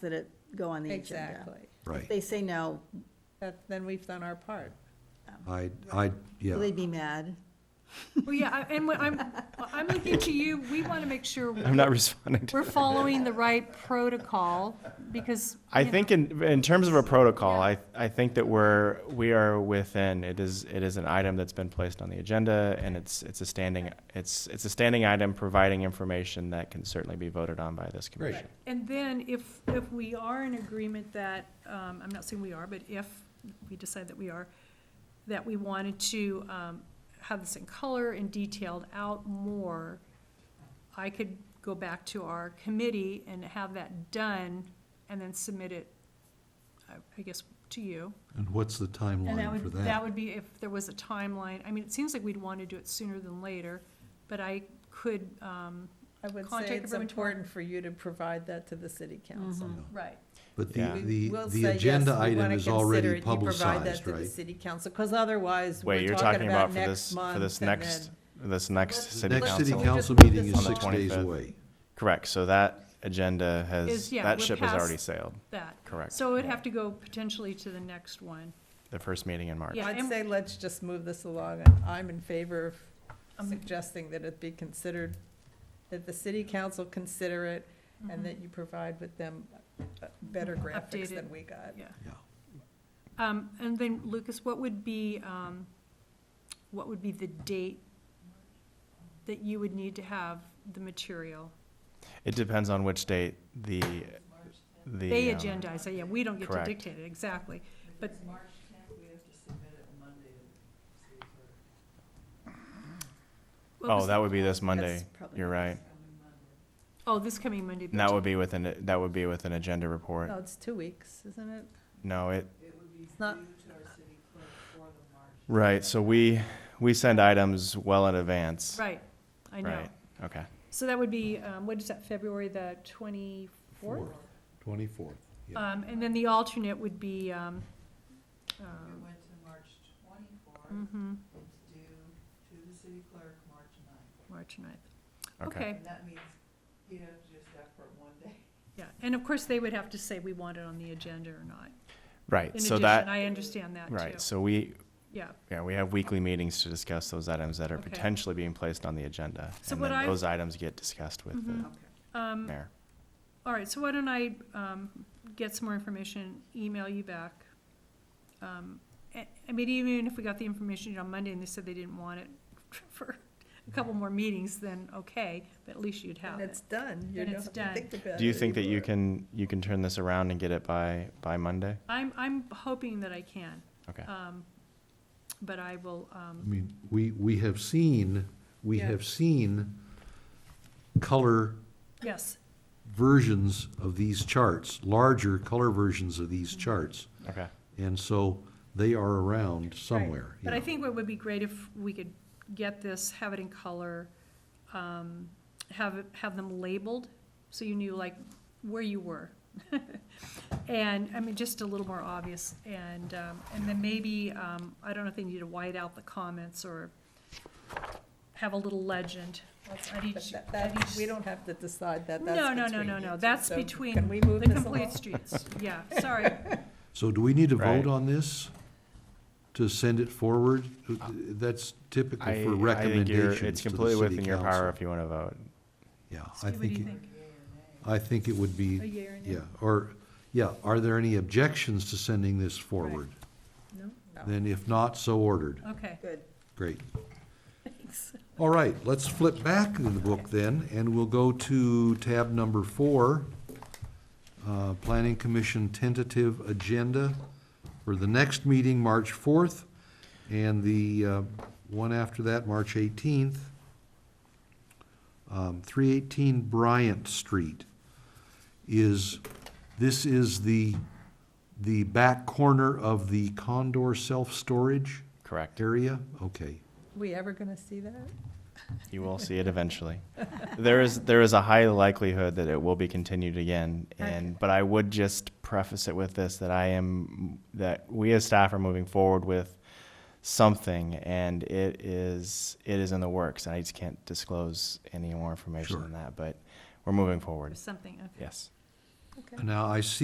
that it go on the agenda. Exactly. If right. They say no, That, then we've done our part. I, I, yeah. will they be mad? Well, yeah, I- and what I'm, I'm looking to you, we want to make sure I'm not responding to. we're following the right protocol, because. I you know, think in, in terms of a protocol, I, I think that we're, we are within, it is, it is an item that's been placed on the agenda and it's, it's a standing, it's, it's a standing item providing information that can certainly be voted on by this commission. And then if, if we are in agreement that, um, I'm not saying we are, but if we decide that we are, that we wanted to, um, have this in color and detailed out more, I could go back to our committee and have that done and then submit it, I I guess, to you. And what's the And that timeline for would, that that? would be if there was a timeline. I mean, it seems like we'd want to do it sooner than later, but I could, um, I would Contact say it's everyone tomorrow. important for you to provide that to the city Mm-hmm. council. right. But Yeah. the, We the, will say, the yes, agenda we item wanna is consider it. already You provide that publicized, to the right? city council, because otherwise, Wait, we're you're talking about for next this, month. for this and next, then- this next The city next city council. council Just meeting on is the six days 25th. away. Correct, so that agenda has, Is- yeah, that we're ship has past- already sailed, That. Correct. So it'd have to go potentially to the next one. the first meeting in March. Yeah, I'd and- say let's just move this along. I'm in favor of Um, suggesting that it be considered, that the city council consider it, mm-hmm. and that you provide with them uh, better graphics Updated. than we got. Yeah. Yeah. Um, and then Lucas, what would be, um, what would be the date that you would need to have the material? It depends on which date the, the. They um, agendize, it. yeah, we don't get to correct. dictate it, exactly. But Well, Oh, this- that would be this Monday, probably you're right. Oh, this coming Monday. And that would be within, that would be with an agenda report. Oh. No, it's two weeks, isn't it? No, it, It's not, right, so we, we send items well in advance. Right, I know. Right, okay. So that would be, um, what is that, February the twenty-fourth? Twenty-fourth. yeah. Um, and then the alternate would be, um, um, went to March twenty-fourth, mhm, it's due to the city clerk March ninth. March ninth. Okay. Okay, And that means he'd have to just effort one day. yeah, and of course, they would have to say we want it on the agenda or not. In Right, so addition, that, I understand that too, right, so we, yeah. yeah, we have weekly meetings to discuss those items that are Okay. potentially being placed on the agenda. So And what I- then those items get discussed with the Um, mayor. All right, so why don't I um, get some more information, email you back? Um, I I mean, even if we got the information on Monday and they said they didn't want it for a couple more meetings, then okay, but at least you'd have and it. it's done. You Then don't it's have to done. think about Do you it think that you anymore. can, you can turn this around and get it by, by Monday? I'm, I'm hoping that I can, Okay. um, but I will, um, I mean, we, we have seen, we Yeah. have seen color yes, versions of these charts, larger color versions of these charts. Okay, And so they are around somewhere. but I yeah. think what would be great if we could get this, have it in color, um, have, it- have them labeled, so you knew like where you were. And, I mean, just a little more obvious, and, um, and then maybe, um, I don't know if they need to white out the comments or have a little legend. That's at But each- that- at that- each- we don't have to decide that, that's No, between no, no, no, you no, two. that's So between Can we move the this along? complete streets, yeah, sorry, So do we need to Right. vote on this to send it forward? That's typical for I, Uh, I think you're, recommendations to the it's completely within city your power council. if you want to vote. Yeah, I Steve, what do think, you it- think? I think it would A be, yea or nay? yeah, or, yeah, are there any objections to sending this forward? No? Then if not, so ordered. Okay, Good. Great. thanks. All right, let's flip back in the book then, and we'll go to tab number four, uh, Planning Commission tentative agenda for the next meeting, March 4th, and the uh, one after that, March 18th, um, 318 Bryant Street is, this is the, the back corner of the Condor self-storage Correct. area? Okay. We ever gonna see that? You will see it eventually. There is, there is a high likelihood that it will be continued again. And, but I would just preface it with this, that I am, that we as staff are moving forward with something and it is, it is in the works. And I just can't disclose any more information Sure. than that, but we're moving Or forward. something, okay. Yes. Okay. Now, I see